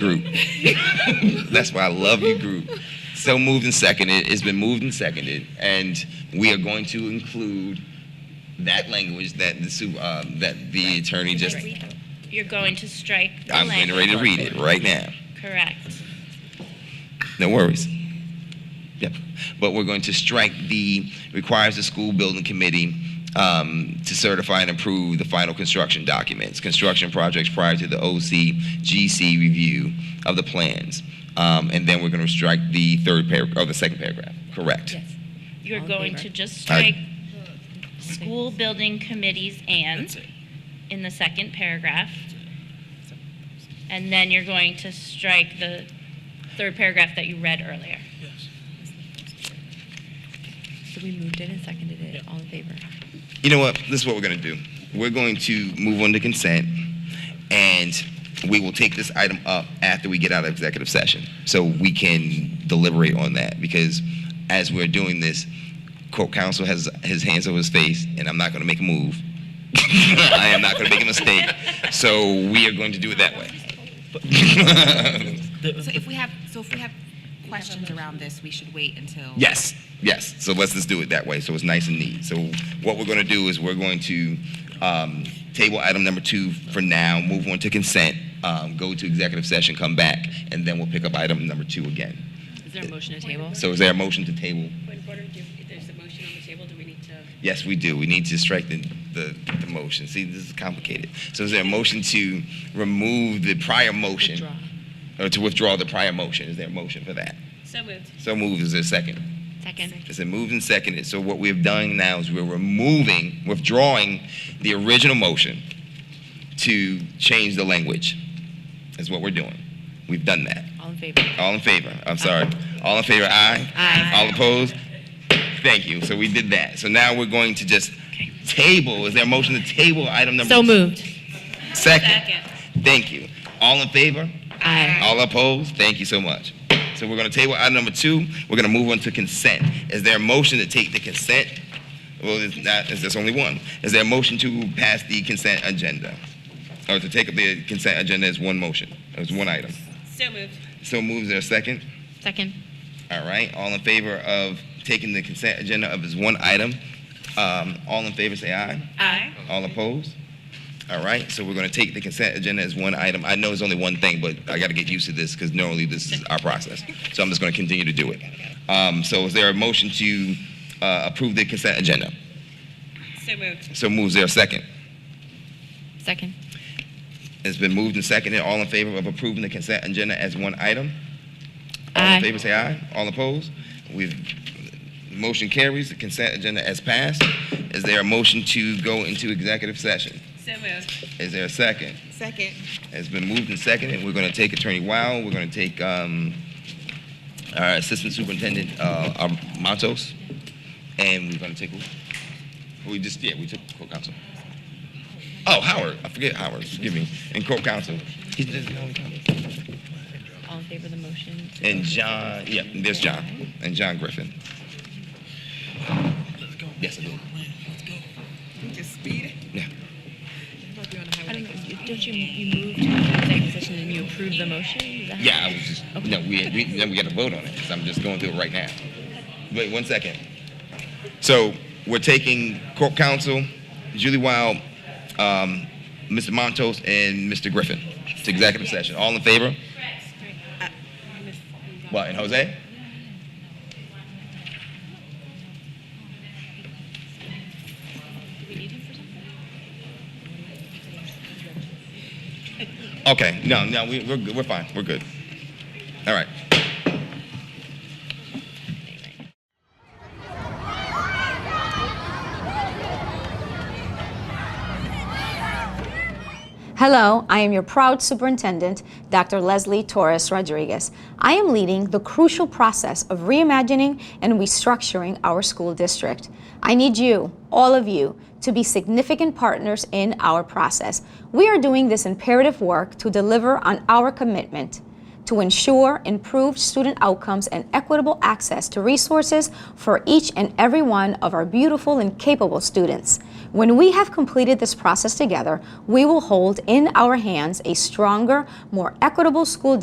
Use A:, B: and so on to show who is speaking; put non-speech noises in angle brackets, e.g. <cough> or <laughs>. A: group. <laughs> That's why I love you group. So moved and seconded. It's been moved and seconded, and we are going to include that language that the su- uh, that the attorney just.
B: You're going to strike the
A: I'm getting ready
B: language.
A: to read it right now.
B: Correct.
A: No worries. Yep. But we're going to strike the requires the school building committee um, to certify and approve the final construction documents, construction projects prior to the OCGC review of the plans. Um, and then we're going to strike the third paragraph, or the second paragraph. Correct.
C: Yes.
B: You're
C: All in
B: going
C: favor?
B: to just
A: Aye.
B: strike school building committees and
C: That's it.
B: in the second paragraph. And then you're going to strike the third paragraph that you read earlier.
C: So we moved it and seconded it, all in favor?
A: You know what? This is what we're going to do. We're going to move on to consent, and we will take this item up after we get out of executive session, so we can deliberate on that. Because as we're doing this, court counsel has his hands over his face, and I'm not going to make a move. <laughs> I am not going to make a mistake. So we are going to do it that way. <laughs>
D: So if we have, so if we have questions around this, we should wait until.
A: Yes, yes. So let's just do it that way. So it's nice and neat. So what we're going to do is we're going to um, table item number two for now, move on to consent, um, go to executive session, come back, and then we'll pick up item number two again.
C: Is there a motion to table?
A: So is there a motion to table?
E: Point of order, do, if there's a motion on the table, do we need to?
A: Yes, we do. We need to strengthen the, the motion. See, this is complicated. So is there a motion to remove the prior motion?
C: Withdraw.
A: Or to withdraw the prior motion? Is there a motion for that?
E: So moved.
A: So moved. Is there a second?
C: Second.
A: It's been moved and seconded. So what we've done now is we're removing, withdrawing the original motion to change the language. Is what we're doing. We've done that.
C: All in favor?
A: All in favor? I'm sorry. All in favor? Aye.
C: Aye.
A: All opposed? Thank you. So we did that. So now we're going to just table. Is there a motion to table item number?
C: So moved.
A: Second. Thank you. All in favor?
C: Aye.
A: All opposed? Thank you so much. So we're gonna table item number two. We're gonna move on to consent. Is there a motion to take the consent? Well, it's not, it's, there's only one. Is there a motion to pass the consent agenda? Or to take up the consent agenda as one motion, as one item?
E: So moved.
A: So moves there a second?
C: Second.
A: All right, all in favor of taking the consent agenda of as one item? Um, all in favor, say aye.
E: Aye.
A: All opposed? All right, so we're gonna take the consent agenda as one item. I know it's only one thing, but I gotta get used to this, because normally this is our process. So I'm just gonna continue to do it. Um, so is there a motion to, uh, approve the consent agenda?
E: So moved.
A: So moves there a second?
C: Second.
A: It's been moved and seconded, all in favor of approving the consent agenda as one item? All
C: Aye.
A: in favor, say aye. All opposed? We've, motion carries, the consent agenda as passed. Is there a motion to go into executive session?
E: So moved.
A: Is there a second?
D: Second.
A: It's been moved and seconded. We're going to take Attorney Wild. We're going to take um, our Assistant Superintendent uh, um, Matos, and we're going to take who? We just yeah, we took Court Counsel. Oh, Howard. I forget Howard. Excuse me. And Court Counsel. He's just the only counsel.
C: All in favor of the motion?
A: And John. Yeah, there's John and John Griffin. Yes, I do.
D: Just speed it.
A: Yeah.
C: I don't know, don't you, you moved to executive session and you approved the motion? Is that how-
A: Yeah, I was just no. We we, then we got to vote on it. 'cause I'm just going through it right now. Wait one second. So we're taking court counsel, Julie Wild, um, Mr. Montos, and Mr. Griffin to executive session. All in favor? What and Jose? Okay, no, no, we, we're good. We're fine. We're good. All right.
F: Hello, I am your proud superintendent, Dr. Leslie Torres Rodriguez. I am leading the crucial process of reimagining and restructuring our school district. I need you, all of you, to be significant partners in our process. We are doing this imperative work to deliver on our commitment to ensure improved student outcomes and equitable access to resources for each and every one of our beautiful and capable students. When we have completed this process together, we will hold in our hands a stronger, more equitable school